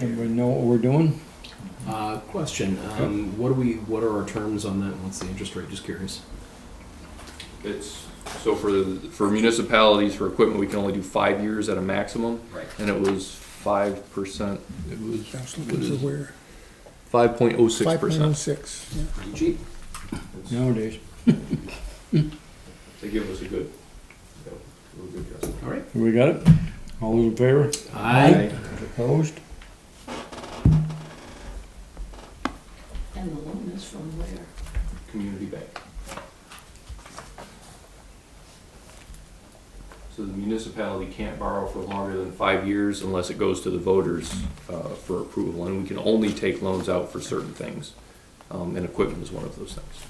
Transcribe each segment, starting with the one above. Everybody know what we're doing? Uh, question. Um, what do we? What are our terms on that? What's the interest rate? Just curious. It's, so for, the- for municipalities, for equipment, we can only do five years at a maximum. Right. And it was five percent, it was I was looking to where? five point oh six Five point oh percent. six, yeah. Pretty cheap. Nowadays, They give us a good, a good guess. All right. we got it? All those in favor? I. Opposed? And the loan is from where? Community Bank. So the municipality can't borrow for longer than five years unless it goes to the voters uh, for approval. And we can only take loans out for certain things, Um, and equipment is one of those things.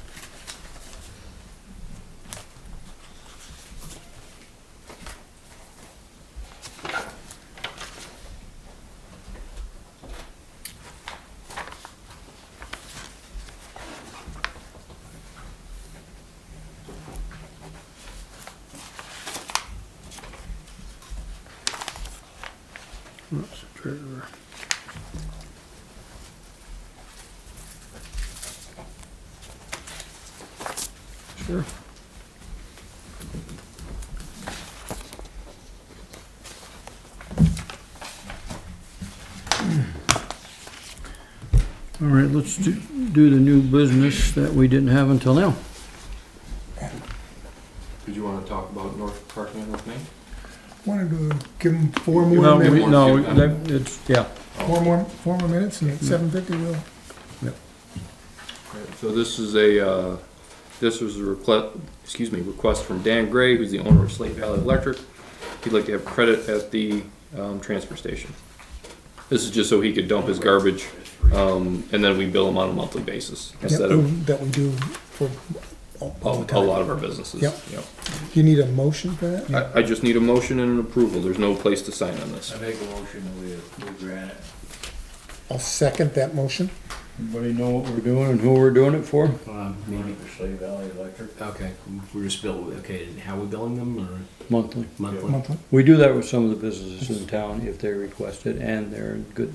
Whoops, treasurer. Sure. All right, let's do, do the new business that we didn't have until now. Did you want to talk about North Parkland with me? Wanted to give them four No, more we- minutes, no, we- that- it's, yeah, four more, four more minutes Mm-hmm. and at seven fifty we'll, So this is a, uh, this was a request, excuse me, request from Dan Gray, who's the owner of Slate Valley Electric. He'd like to have credit at the um, transfer station. This is just so he could dump his garbage, um, and then we bill him on a monthly basis yeah, instead of that we do for all a all the a time. lot of our businesses. Yep. Yep. You need a motion for that? I, I just need a motion and an approval. There's no place to sign on this. I make a motion that we approve granite. I'll second that motion. Everybody know what we're doing and who we're doing it for? Um, maybe. For Slave Valley Electric. Okay. We're just bill. Okay. and How are we billing them or Monthly. monthly? Monthly. We do that with some of the businesses in town if they request it and they're in good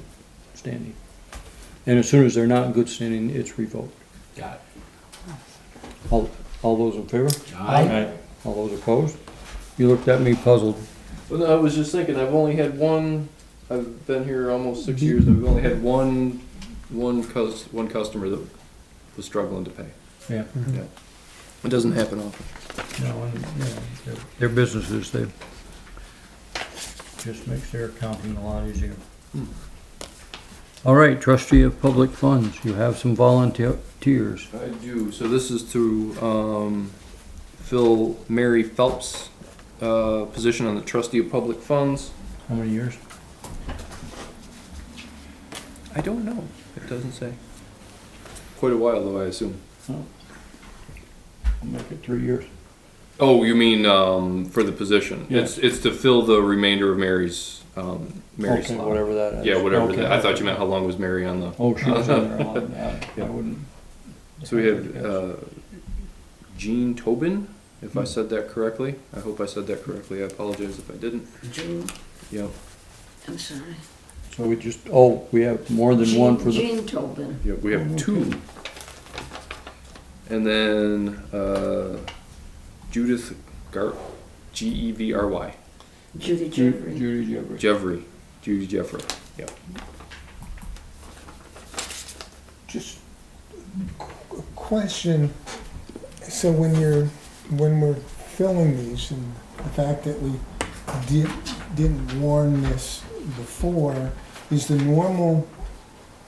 standing. And as soon as they're not in good standing, it's revoked. Got All, all those in favor? it. I. All those opposed? You looked at me puzzled. Well, no, I was just thinking, I've only had one, I've been here almost six years, and we've only had one, one cus, one customer that was struggling to pay. Yeah. Yeah. It doesn't happen often. they're businesses, they, Just makes their accounting a lot easier. all right, trustee of public funds, you have some volunteers. I do, so this is to, um, fill Mary Phelps, uh, position on the trustee of public funds. How many years? I don't know, it doesn't say. Quite a while though, I assume. I'll make it three years. Oh, you mean, um, for the position? Yeah. It's, it's to fill the remainder of Mary's, um, Mary's Okay, slot. Whatever that is. Yeah, whatever. Okay. that- I thought you meant how long was Mary on the. Oh, she was in there a lot. I- I wouldn't. So we had uh, Jean Tobin, if I said that correctly. I hope I said that correctly. I apologize if I didn't. Jean, Yep. I'm sorry. So we just, oh, we have more than one for the, Jean Tobin. Yep. We have two. And then uh, Judith Gar, G E V R Y, Judy Ju- Jeffrey. Judy Jeffrey. Jeffrey, Judy Jeffrey. Yep. Just a question, so when you're, when we're filling these and the fact that we did, didn't warn this before, is the normal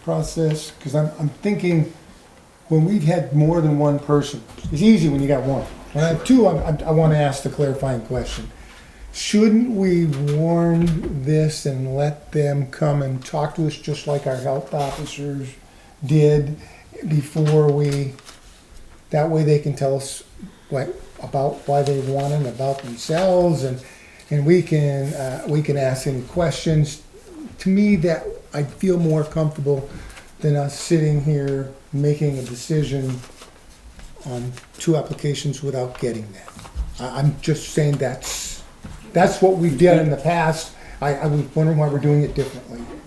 process, because I'm, I'm thinking, when we've had more than one person, it's easy when you got one. When I have two, I, I want to ask the clarifying question. Shouldn't we warn this and let them come and talk to us just like our health officers did before we, that way they can tell us what, about why they want it, about themselves, and, and we can, uh, we can ask any questions. To me, that, I feel more comfortable than us sitting here making a decision on two applications without getting that. I, I'm just saying that's, that's what we did in the past. I, I was wondering why we're doing it differently.